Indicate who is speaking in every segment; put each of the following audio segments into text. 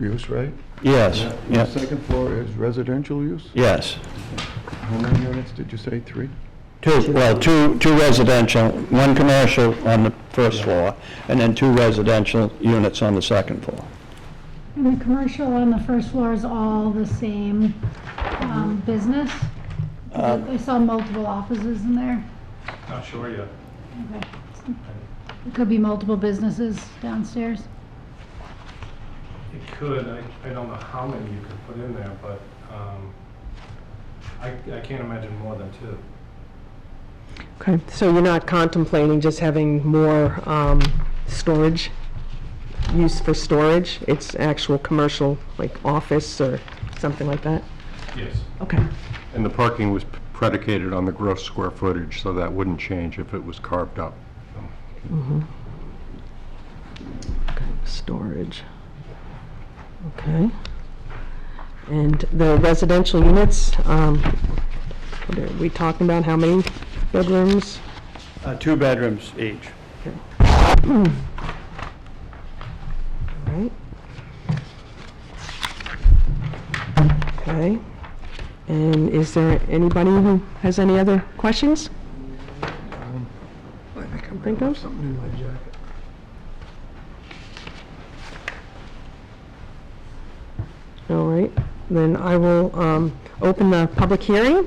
Speaker 1: use, right?
Speaker 2: Yes,
Speaker 1: The
Speaker 2: yes,
Speaker 1: second floor is residential use?
Speaker 2: yes.
Speaker 1: How many units did you say, three?
Speaker 2: Two, well, two, two residential, one commercial on the first floor, and then two residential units on the second floor.
Speaker 3: And the commercial on the first floor is all the same um, business?
Speaker 2: Um,
Speaker 3: I saw multiple offices in there.
Speaker 4: Not sure yet.
Speaker 3: Okay. It could be multiple businesses downstairs.
Speaker 4: It could, I, I don't know how many you could put in there, but, um, I, I can't imagine more than two.
Speaker 5: Okay, so you're not contemplating just having more um, storage, use for storage? It's actual commercial, like office or something like that?
Speaker 4: Yes.
Speaker 5: Okay,
Speaker 6: And the parking was predicated on the gross square footage, so that wouldn't change if it was carved up.
Speaker 5: storage. Okay. And the residential units, um, what are we talking about, how many bedrooms?
Speaker 2: Uh, Two bedrooms each.
Speaker 5: All right. Okay. And is there anybody who has any other questions?
Speaker 1: I think I'm
Speaker 5: Think of?
Speaker 1: something in my jacket.
Speaker 5: All right, then I will um, open the public hearing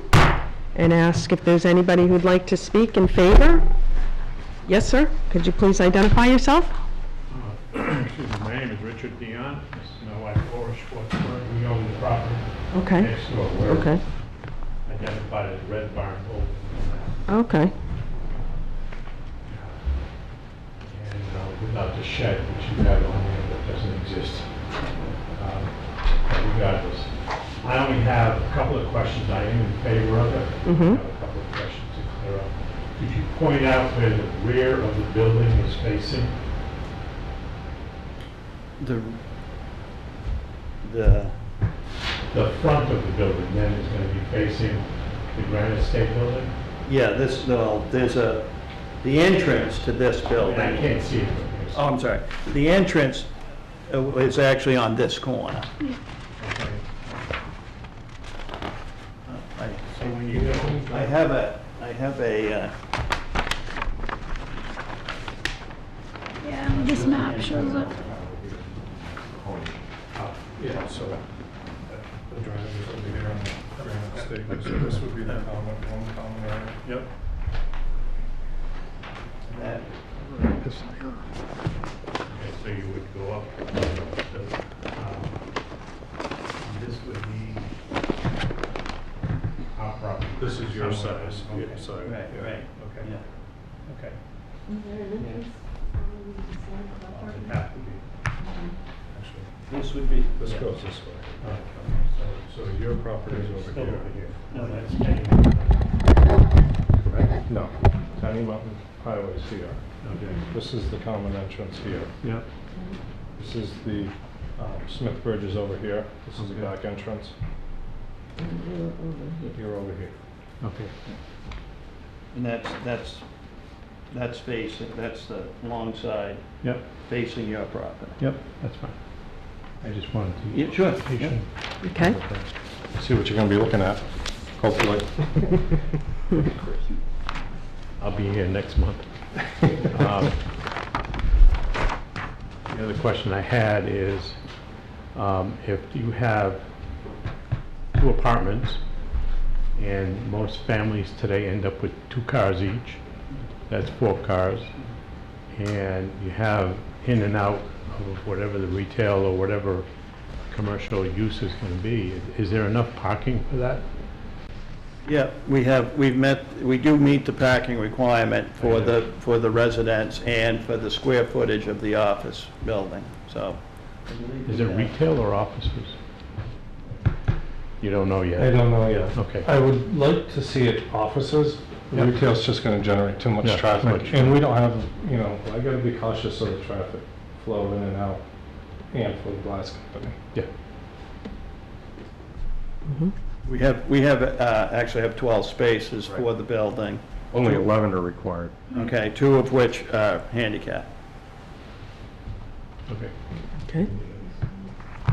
Speaker 5: and ask if there's anybody who'd like to speak in favor. Yes, sir? Could you please identify yourself?
Speaker 7: Uh, Excuse me, my name is Richard Dion, this is my wife Laura Schwartzberg, we own the property
Speaker 5: Okay,
Speaker 7: next door, we're
Speaker 5: okay,
Speaker 7: identified as Red Barn Old.
Speaker 5: okay,
Speaker 7: And uh, without the shed, which you have on there, that doesn't exist. Um, but Regardless, I only have a couple of questions, I am in favor of it.
Speaker 5: Mhm.
Speaker 7: I have a couple of questions to clear up. Could you point out where the rear of the building is facing?
Speaker 2: The, the,
Speaker 7: The front of the building then is going to be facing the Granite State Building?
Speaker 2: yeah, this, no, there's a, the entrance to this building.
Speaker 7: And I can't see it. from here, so-
Speaker 2: Oh, I'm sorry. The entrance uh, is actually on this corner.
Speaker 7: Okay.
Speaker 2: I
Speaker 7: So when you go.
Speaker 2: I have a, I have a, uh,
Speaker 3: Yeah, this map shows it.
Speaker 4: Uh, Yeah, so uh, the driveways would be there on the granite statement, so this would be the common, one common area.
Speaker 7: Yep.
Speaker 2: that-
Speaker 1: This-
Speaker 7: Okay, So you would go up. so, um, This would be our property.
Speaker 4: This is your
Speaker 7: Somewhere.
Speaker 4: size,
Speaker 7: Okay.
Speaker 4: your side.
Speaker 2: right, right,
Speaker 4: Okay,
Speaker 2: yeah.
Speaker 7: Okay.
Speaker 4: Well, it'd have to be. Actually,
Speaker 2: This would be.
Speaker 4: This
Speaker 2: yeah.
Speaker 4: goes this way. So so your property is over
Speaker 7: Still
Speaker 4: here.
Speaker 7: over here. No, that's Kenny.
Speaker 4: Right? No, Tenny Mountain Highway's here.
Speaker 7: Okay.
Speaker 4: This is the common entrance here.
Speaker 7: Yep.
Speaker 4: This is the um, Smith Bridge is over here. This is the
Speaker 7: Okay.
Speaker 4: back entrance. You're over here.
Speaker 7: Okay.
Speaker 2: And that's, that's, that's facing, that's the long side
Speaker 7: Yep,
Speaker 2: facing your property.
Speaker 7: yep, that's fine. I just wanted to.
Speaker 2: Yeah, sure. yeah.
Speaker 5: okay.
Speaker 4: See what you're gonna be looking at, hopefully.
Speaker 7: I'll be here next month. Um, The other question I had is, um, if you have two apartments, and most families today end up with two cars each, that's four cars, and you have in and out of whatever the retail or whatever commercial use is going to be, is there enough parking for that?
Speaker 2: Yeah, we have, we've met, we do meet the parking requirement for the, for the residents and for the square footage of the office building, so.
Speaker 7: Is it retail or offices? You don't know yet?
Speaker 4: I don't know yet.
Speaker 7: Okay.
Speaker 4: I would like to see it offices.
Speaker 7: Yeah.
Speaker 4: Retail's just gonna generate too much
Speaker 7: Yeah,
Speaker 4: traffic.
Speaker 7: right.
Speaker 4: And we don't have, you know, I gotta be cautious of the traffic flow in and out and for the glass company.
Speaker 7: Yeah.
Speaker 2: We have, we have, uh, actually have 12 spaces for the building,
Speaker 6: Only 11 are required.
Speaker 2: okay, two of which are handicap.
Speaker 7: Okay.
Speaker 5: Okay.